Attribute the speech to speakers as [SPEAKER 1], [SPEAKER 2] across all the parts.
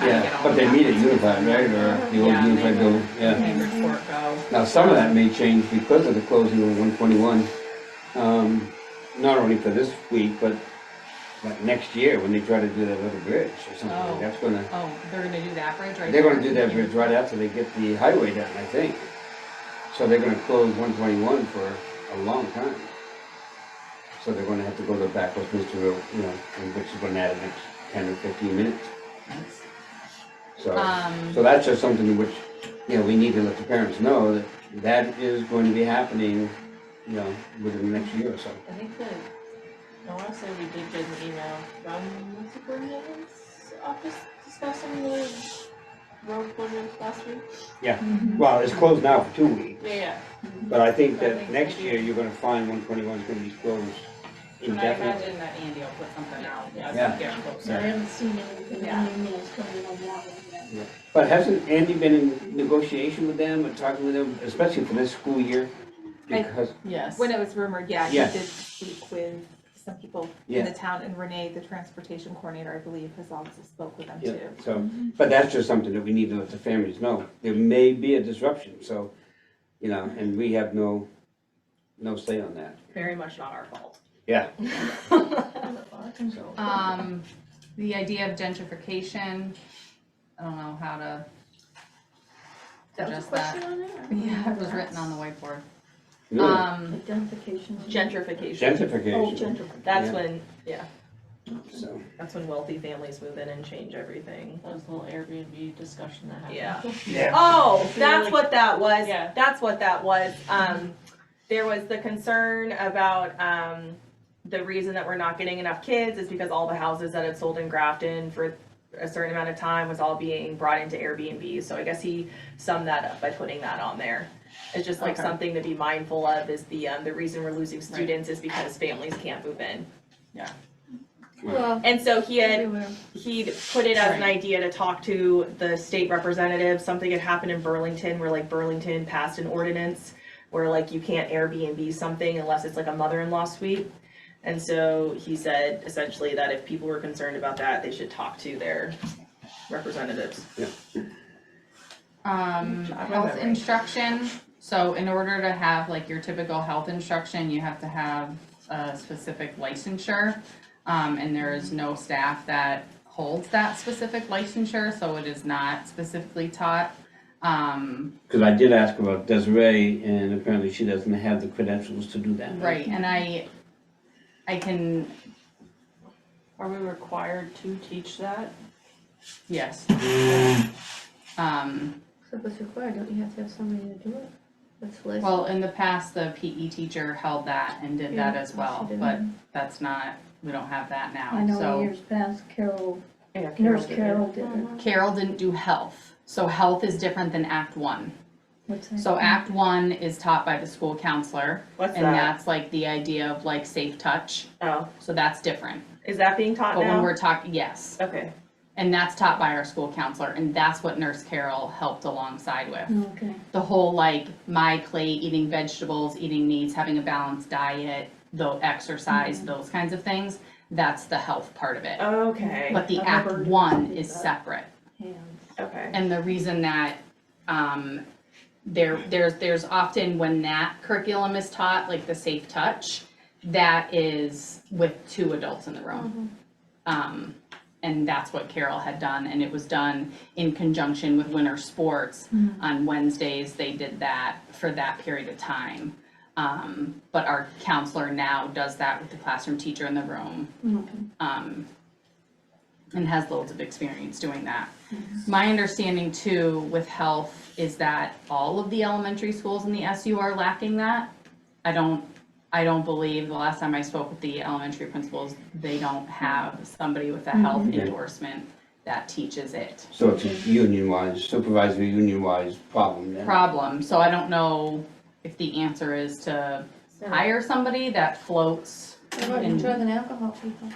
[SPEAKER 1] Yeah, but they meet at Unified, right, or the old
[SPEAKER 2] Yeah, they
[SPEAKER 1] Unified
[SPEAKER 2] do.
[SPEAKER 1] building, yeah.
[SPEAKER 2] Neighbors forego.
[SPEAKER 1] Now, some of that may change because of the closing of one twenty-one. Um, not only for this week, but like next year, when they try to do that little bridge or something,
[SPEAKER 2] Oh.
[SPEAKER 1] that's gonna,
[SPEAKER 2] Oh, they're gonna do that bridge right
[SPEAKER 1] they're gonna do that bridge right after they get the highway done, I think. So they're gonna close one twenty-one for a long time. So they're gonna have to go to backwards, Mr. Road, you know, and which is gonna add an next ten or fifteen minutes. So.
[SPEAKER 2] Um,
[SPEAKER 1] So that's just something which, you know, we need to let the parents know that that is going to be happening, you know, within the next year or so.
[SPEAKER 3] I think that, I wanna say we did get an email from the superintendent's office discussing the road closures last week.
[SPEAKER 1] Well, it's closed now for two weeks,
[SPEAKER 3] Yeah, yeah,
[SPEAKER 1] but I think that next year you're gonna find one twenty-one is gonna be closed
[SPEAKER 2] and I
[SPEAKER 1] indefinitely.
[SPEAKER 2] imagine that Andy will put something out as
[SPEAKER 1] Yeah.
[SPEAKER 2] we get
[SPEAKER 4] I
[SPEAKER 2] closer.
[SPEAKER 4] haven't seen anything,
[SPEAKER 2] Yeah.
[SPEAKER 4] any rules coming on that one yet.
[SPEAKER 1] But hasn't Andy been in negotiation with them and talking with them, especially for this school year?
[SPEAKER 5] I-
[SPEAKER 1] Because,
[SPEAKER 3] yes.
[SPEAKER 5] When it was rumored, yeah, he
[SPEAKER 1] Yeah.
[SPEAKER 5] did speak with some people
[SPEAKER 1] Yeah.
[SPEAKER 5] in the town, and Renee, the transportation coordinator, I believe, has also spoke with them
[SPEAKER 1] yeah,
[SPEAKER 5] too.
[SPEAKER 1] so, but that's just something that we need to let the families know. There may be a disruption, so, you know, and we have no, no say on that.
[SPEAKER 2] Very much not our fault.
[SPEAKER 1] Yeah,
[SPEAKER 4] Control.
[SPEAKER 2] Um, the idea of gentrification, I don't know how to
[SPEAKER 3] That was a
[SPEAKER 2] address that.
[SPEAKER 3] question on it? I don't
[SPEAKER 2] Yeah, it was
[SPEAKER 3] remember.
[SPEAKER 2] written on the whiteboard.
[SPEAKER 1] really.
[SPEAKER 2] Um,
[SPEAKER 4] Identification.
[SPEAKER 3] Gentrification,
[SPEAKER 4] Oh,
[SPEAKER 1] Gentrification,
[SPEAKER 4] gentrification.
[SPEAKER 3] that's
[SPEAKER 1] Yeah.
[SPEAKER 3] when, yeah,
[SPEAKER 1] so,
[SPEAKER 3] that's when wealthy families move in and change everything.
[SPEAKER 6] That was the little Airbnb discussion that happened.
[SPEAKER 3] Yeah.
[SPEAKER 1] yeah,
[SPEAKER 3] Oh,
[SPEAKER 6] So you're
[SPEAKER 3] that's
[SPEAKER 6] like-
[SPEAKER 3] what that was.
[SPEAKER 6] Yeah.
[SPEAKER 3] That's what that was. Um, there was the concern about, um, the reason that we're not getting enough kids is because all the houses that had sold in Grafton for a certain amount of time was all being brought into Airbnb. So I guess he summed that up by putting that on there. It's just like
[SPEAKER 2] Okay.
[SPEAKER 3] something to be mindful of is the, um, the reason we're losing students is because families can't move in.
[SPEAKER 4] Well,
[SPEAKER 3] And so he had
[SPEAKER 4] everywhere.
[SPEAKER 3] he'd put it as an
[SPEAKER 2] Right.
[SPEAKER 3] idea to talk to the state representative. Something had happened in Burlington where like Burlington passed an ordinance where like you can't Airbnb something unless it's like a mother-in-law suite. And so he said essentially that if people were concerned about that, they should talk to their representatives.
[SPEAKER 4] Mm,
[SPEAKER 2] um,
[SPEAKER 3] job,
[SPEAKER 2] health
[SPEAKER 3] memory.
[SPEAKER 2] instruction, so in order to have like your typical health instruction, you have to have a specific licensure. Um, and there is no staff that holds that specific licensure, so it is not specifically taught. Um,
[SPEAKER 1] because I did ask about Desiree, and apparently she doesn't have the credentials to do that.
[SPEAKER 2] Right, and I, I can,
[SPEAKER 6] Are we required to teach that?
[SPEAKER 2] yes. Um,
[SPEAKER 4] So if it's required, don't you have to have somebody to do it? That's less.
[SPEAKER 2] well, in the past, the PE teacher held that and did that as well, but that's not, we don't have that
[SPEAKER 4] I
[SPEAKER 2] now,
[SPEAKER 4] know
[SPEAKER 2] so.
[SPEAKER 4] years past, Carol,
[SPEAKER 3] Yeah,
[SPEAKER 4] Nurse Carol did it.
[SPEAKER 2] Carol didn't do health, so health is different than Act One.
[SPEAKER 4] What's that?
[SPEAKER 2] So Act One is taught by the school counselor,
[SPEAKER 3] Mm-hmm. What's
[SPEAKER 2] and
[SPEAKER 3] that?
[SPEAKER 2] that's like the idea of like safe touch,
[SPEAKER 3] Oh,
[SPEAKER 2] so that's different.
[SPEAKER 3] is that being taught
[SPEAKER 2] But when
[SPEAKER 3] now?
[SPEAKER 2] we're talking, yes,
[SPEAKER 3] Okay,
[SPEAKER 2] and that's taught by our school counselor, and that's what Nurse Carol helped alongside with.
[SPEAKER 4] Okay.
[SPEAKER 2] the whole like my plate, eating vegetables, eating meats, having a balanced diet, the exercise, those kinds of things. That's the health part of it.
[SPEAKER 3] Mm-hmm. okay,
[SPEAKER 2] But the
[SPEAKER 4] I've
[SPEAKER 2] act
[SPEAKER 4] never really
[SPEAKER 2] one
[SPEAKER 4] did
[SPEAKER 2] is
[SPEAKER 4] that.
[SPEAKER 2] separate.
[SPEAKER 4] Hands.
[SPEAKER 3] okay.
[SPEAKER 2] And the reason that um, there there's there's often when that curriculum is taught, like the safe touch, that is with two adults in the room. Um, and that's what Carol had done, and it was done in conjunction with winter sports. On Wednesdays, they did that for that period of time. Um, but our counselor now does that with the classroom teacher in the room.
[SPEAKER 4] Okay.
[SPEAKER 2] Um, and has loads of experience doing that. My understanding too with health is that all of the elementary schools in the SU are lacking that. I don't, I don't believe, the last time I spoke with the elementary principals, they don't have somebody with a health
[SPEAKER 1] Mhm.
[SPEAKER 2] endorsement that teaches it.
[SPEAKER 1] So it's a union-wise, supervisory union-wise problem then.
[SPEAKER 2] Problem, so I don't know if the answer is to hire somebody that floats,
[SPEAKER 4] What about your
[SPEAKER 2] And-
[SPEAKER 4] drug and alcohol people?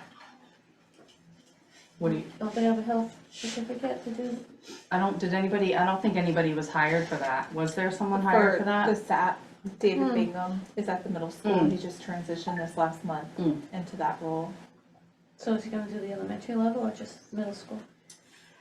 [SPEAKER 2] what do you,
[SPEAKER 4] Don't they have a health certificate to do?
[SPEAKER 2] I don't, did anybody, I don't think anybody was hired for that. Was there someone hired for
[SPEAKER 5] The
[SPEAKER 2] that?
[SPEAKER 5] SAP, David
[SPEAKER 4] Hmm.
[SPEAKER 5] Bingham is at the middle school,
[SPEAKER 2] Hmm.
[SPEAKER 5] he just transitioned this last month
[SPEAKER 2] Hmm.
[SPEAKER 5] into that role.
[SPEAKER 4] So is he gonna do the elementary level or just middle school?